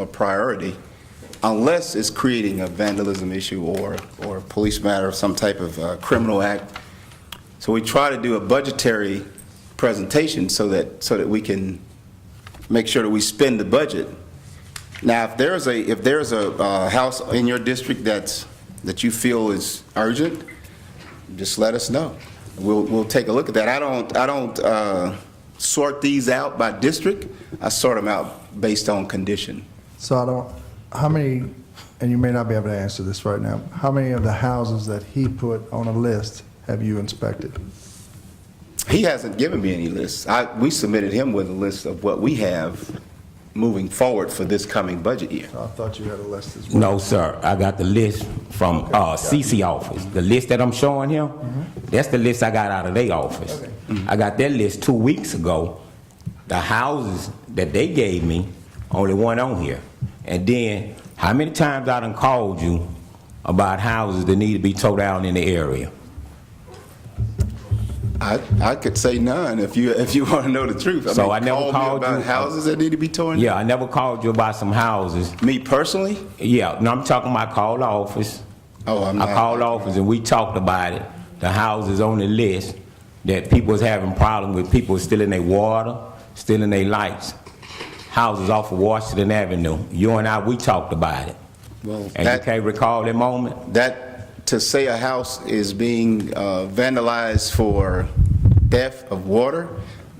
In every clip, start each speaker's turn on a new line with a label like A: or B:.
A: a priority unless it's creating a vandalism issue or, or a police matter of some type of uh, criminal act. So we try to do a budgetary presentation so that, so that we can make sure that we spend the budget. Now, if there's a, if there's a uh, house in your district that's, that you feel is urgent, just let us know. We'll, we'll take a look at that. I don't, I don't uh, sort these out by district. I sort them out based on condition.
B: So I don't, how many, and you may not be able to answer this right now, how many of the houses that he put on a list have you inspected?
A: He hasn't given me any lists. I, we submitted him with a list of what we have moving forward for this coming budget year.
B: I thought you had a list as well.
C: No, sir. I got the list from uh, CC office. The list that I'm showing him, that's the list I got out of their office. I got that list two weeks ago. The houses that they gave me, only one on here. And then, how many times I done called you about houses that need to be towed down in the area?
A: I, I could say none if you, if you want to know the truth.
C: So
A: mean,
C: I never
A: call me
C: called
A: about
C: you-
A: houses that need to be torn?
C: Yeah, I never called you about some houses.
A: Me personally?
C: Yeah, no, I'm talking about call the office.
A: Oh, I'm
C: I
A: not-
C: called office and we talked about it. The houses on the list that people was having problem with, people stealing their water, stealing their lights. Houses off of Washington Avenue. You and I, we talked about it.
A: Well,
C: And
A: that-
C: you can't recall that moment?
A: That, to say a house is being uh, vandalized for theft of water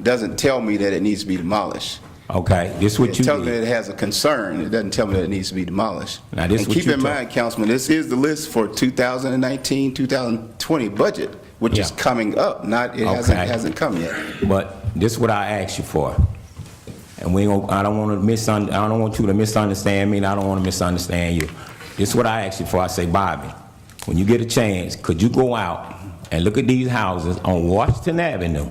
A: doesn't tell me that it needs to be demolished.
C: Okay, this what
A: It
C: you
A: tells me that
C: did.
A: it has a concern, it doesn't tell me that it needs to be demolished.
C: Now, this
A: And
C: what
A: keep
C: you
A: in
C: talk-
A: mind, Councilman, this is the list for 2019, 2020 budget, which is
C: Yeah.
A: coming up, not, it hasn't,
C: Okay.
A: hasn't come yet.
C: But this what I asked you for. And we don't, I don't wanna misun, I don't want you to misunderstand me and I don't wanna misunderstand you. This what I asked you for. I say, Bobby, when you get a chance, could you go out and look at these houses on Washington Avenue?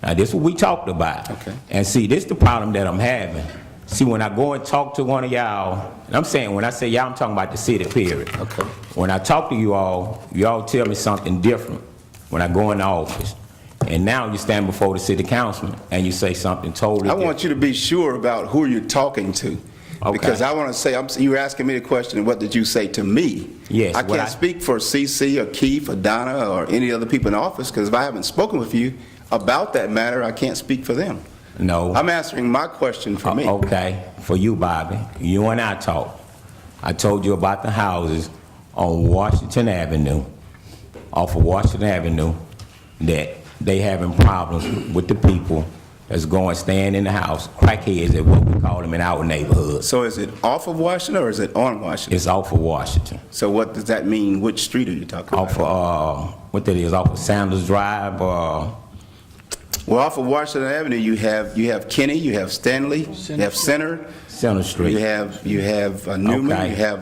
C: Now, this what we talked about.
A: Okay.
C: And see, this the problem that I'm having. See, when I go and talk to one of y'all, and I'm saying, when I say y'all, I'm talking about the city period.
A: Okay.
C: When I talk to you all, y'all tell me something different when I go in the office. And now you stand before the city councilman and you say something totally
A: I
C: different.
A: want you to be sure about who you're talking to.
C: Okay.
A: Because I want to say, I'm- you were asking me the question, what did you say to me?
C: Yes,
A: I
C: what
A: can't
C: I-
A: speak for CC or Keith or Donna or any other people in office, because if I haven't spoken with you about that matter, I can't speak for them.
C: No.
A: I'm answering my question for me.
C: Oh. Uh, Okay, for you, Bobby. You and I talked. I told you about the houses on Washington Avenue, off of Washington Avenue, that they having problems with the people that's going, staying in the house, crackheads is what we call them in our neighborhoods.
A: So is it off of Washington or is it on Washington?
C: It's off of Washington,
A: So what does that mean? Which street are you talking about?
C: off of, uh, what that is, off of Sanders Drive, uh,
A: Well, off of Washington Avenue, you have, you have Kenny, you have Stanley, you have Center,
C: Center Street.
A: You have, you have uh, Newman,
C: Okay.
A: you have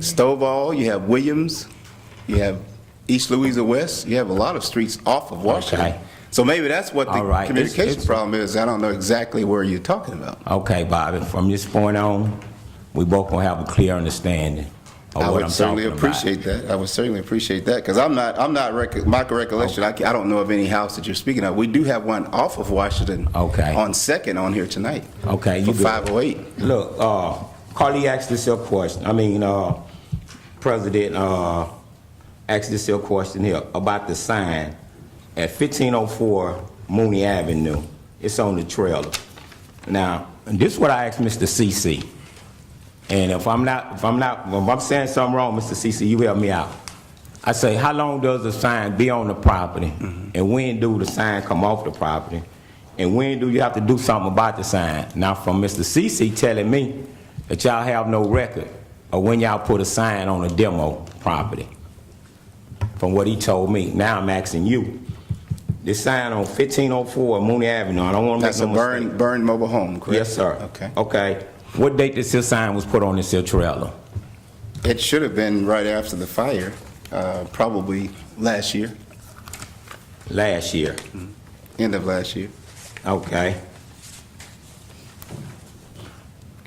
A: Stovall, you have Williams, you have East Louisa West, you have a lot of streets off of Washington.
C: Okay.
A: So maybe that's what the
C: All right. It's-
A: communication
C: it's-
A: problem is, I don't know exactly where you're talking about.
C: Okay, Bobby, from this point on, we both gonna have a clear understanding
A: I
C: of Oh, what I'm
A: would certainly
C: talking about.
A: appreciate that, I would certainly appreciate that, because I'm not, I'm not, rec- my recollection, I ca- I don't know of any house that you're speaking of. We do have one off of Washington.
C: Okay.
A: On Second on here tonight.
C: Okay, you
A: For
C: good.
A: 508.
C: Look, uh, Carly asked this here question, I mean, uh, President, uh, asked this here question here about the sign at fifteen oh four Mooney Avenue. It's on the trailer. Now, this is what I asked Mr. CC. And if I'm not, if I'm not, if I'm saying something wrong, Mr. CC, you help me out. I say, how long does the sign be on the property?
A: Mm-hmm.
C: And when do the sign come off the property? And when do you have to do something about the sign? Now, from Mr. CC telling me that y'all have no record of when y'all put a sign on a demo property, from what he told me. Now I'm asking you, this sign on 1504 Mooney Avenue, I don't want to make
A: That's a
C: no mistake.
A: Burn, Burn Mobile Home, correct?
C: Yes, sir. Oh.
A: Okay.
C: Okay. What date this here sign was put on this here trailer?
A: It should have been right after the fire, uh, probably last year,
C: Last year.
A: Mm-hmm. end of last year.
C: Okay.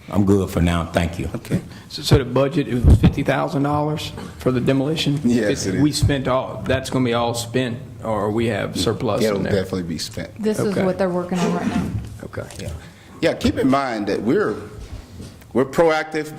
C: I'm good for now, thank you.
A: Okay.
D: So- So the budget, it was $50,000 for the demolition?
A: Yes, it is.
D: We spent all, that's going to be all spent, or we have surplus
A: It'll
D: in there?
A: definitely be spent.
E: This is
D: Okay.
E: what they're working on right now.
D: Okay.
A: Yeah, keep in mind that we're, we're proactive,